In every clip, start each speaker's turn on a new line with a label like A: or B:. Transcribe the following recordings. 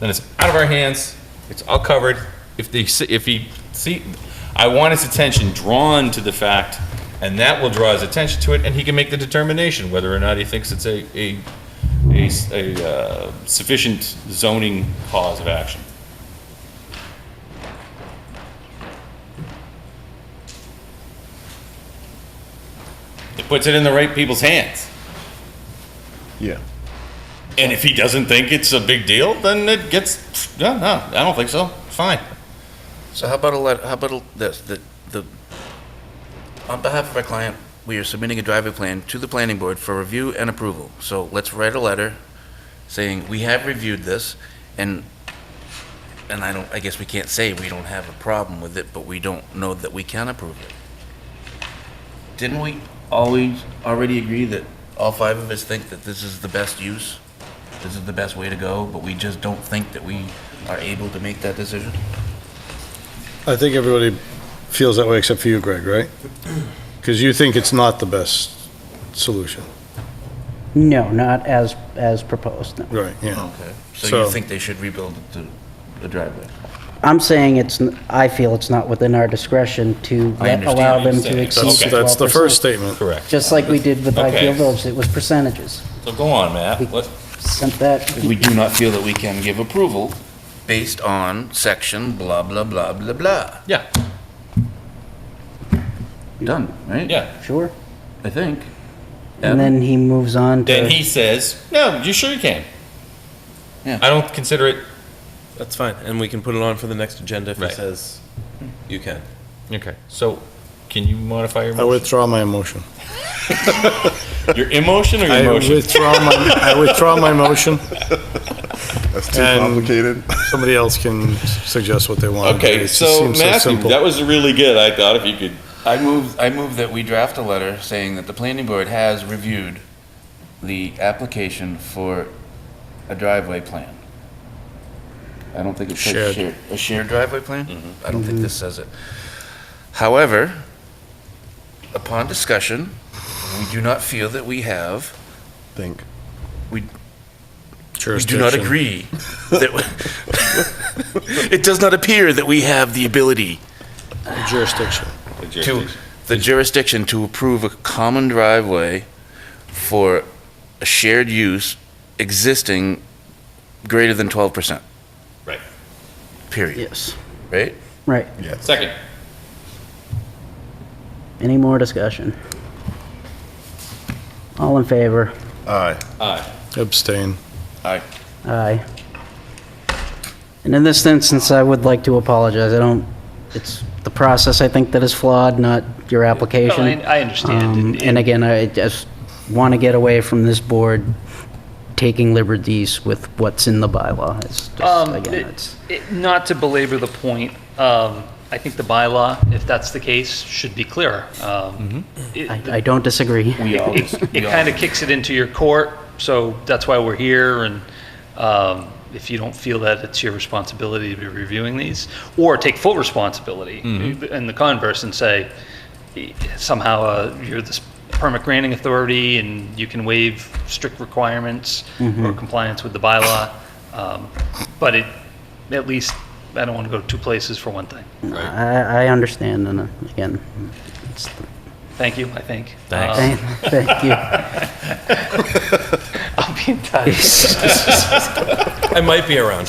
A: then it's out of our hands, it's all covered. If the, if he, see, I want his attention drawn to the fact, and that will draw his attention to it, and he can make the determination whether or not he thinks it's a, a, a s- a, uh, sufficient zoning cause of action. It puts it in the right people's hands.
B: Yeah.
A: And if he doesn't think it's a big deal, then it gets, no, no, I don't think so, fine.
C: So how about a let, how about a- this, the, the, on behalf of our client, we are submitting a driveway plan to the planning board for review and approval. So let's write a letter saying, we have reviewed this, and, and I don't, I guess we can't say we don't have a problem with it, but we don't know that we can approve it. Didn't we always already agree that all five of us think that this is the best use? This is the best way to go, but we just don't think that we are able to make that decision?
B: I think everybody feels that way except for you, Greg, right? Because you think it's not the best solution.
D: No, not as, as proposed, no.
B: Right, yeah.
C: Okay, so
B: So-
C: you think they should rebuild the, the driveway?
D: I'm saying it's, n- I feel it's not within our discretion to
C: I
D: let-
C: understand
D: allow
C: what
D: them
A: you're
D: to
A: saying.
D: exceed
B: That's,
D: the 12%.
B: that's the first statement.
A: Correct.
D: Just like we did with
A: Okay.
D: Highfield Village, it was percentages.
A: So go on, Matt. What-
D: Sent that,
C: We do not feel that we can give approval. Based on section blah, blah, blah, blah, blah.
A: Yeah,
C: Done, right?
A: yeah.
D: sure.
C: I think.
D: And then he moves on to.
A: Then he says, no, you sure you can.
C: Yeah.
A: I don't consider it,
E: That's fine, and we can put it on for the next agenda if
A: Right.
E: it says you can.
A: okay, so can you modify your
B: I
A: motion?
B: withdraw my motion.
A: Your emotion or your
B: I
A: motion?
B: withdraw my, I withdraw my motion.
F: That's too
B: And-
F: complicated.
B: Somebody else can suggest what they want.
A: Okay,
B: It just
A: so
B: seems
A: Matthew,
B: simple.
A: that was really good, I thought, if you could.
C: I move, I move that we draft a letter saying that the planning board has reviewed the application for a driveway plan. I don't think it says
B: Shared.
C: shared, a shared driveway plan? I don't think this says it. However, upon discussion, we do not feel that we have
F: Think.
C: We do not
B: Jurisdiction.
C: agree that, it does not appear that we have the ability
B: Jurisdiction.
C: to, the jurisdiction to approve a common driveway for a shared use existing greater than twelve percent.
A: Right.
C: Period,
D: Yes,
C: right?
D: right.
A: Second,
D: Any more discussion? All in favor?
F: Aye.
A: aye.
B: Abstain.
C: Aye.
D: Aye. And in this instance, I would like to apologize. I don't, it's the process, I think, that is flawed, not your application.
G: No, I- I understand.
D: Um, And again, I just want to get away from this board taking liberties with what's in the bylaw. It's just,
G: Um,
D: again,
G: it-
D: it's,
G: it- Not to belabor the point, um, I think the bylaw, if that's the case, should be clearer.
D: Mm-hmm.
G: Um, It
D: I I don't disagree.
G: kind of kicks it into your court, so that's why we're here, and um, if you don't feel that it's your responsibility to be reviewing these, or take full responsibility, and the converse, and say, somehow uh, you're this permit granting authority and you can waive strict requirements or compliance with the bylaw. Um, But it, at least, I don't want to go two places for one thing.
D: I, I understand, and uh, again, it's,
G: Thank you, I think.
A: Thanks.
G: Um,
D: thank thank you.
G: I'll be in touch.
E: I might be around.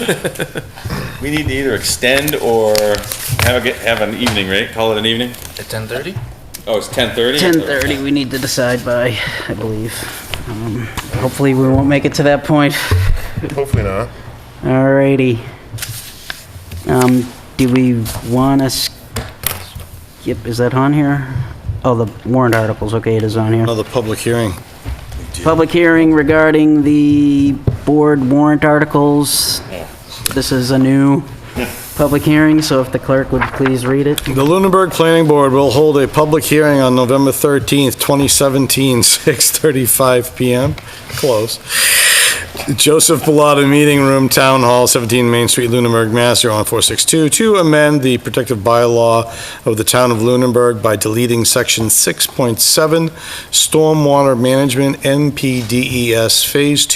A: We need to either extend or have a, get- have an evening, right? Call it an evening?
C: At ten thirty?
A: Oh, it's 10:30?
D: 10:30 we need to decide by, I believe. Um, Hopefully, we won't make it to that point.
F: Hopefully not.
D: Alrighty. Um, do we want to skip, is that on here? Oh, the warrant articles, okay, it is on here.
B: Another public hearing.
D: Public hearing regarding the board warrant articles. This is a new public hearing, so if the clerk would please read it.
B: The Lunenburg Planning Board will hold a public hearing on November 13th, 2017, 6:35 PM, close. Joseph Pilata, Meeting Room, Town Hall, 17 Main Street, Lunenburg, Mass. 01462, to amend the protective bylaw of the town of Lunenburg by deleting section 6.7, Stormwater Management, NPDES E Phase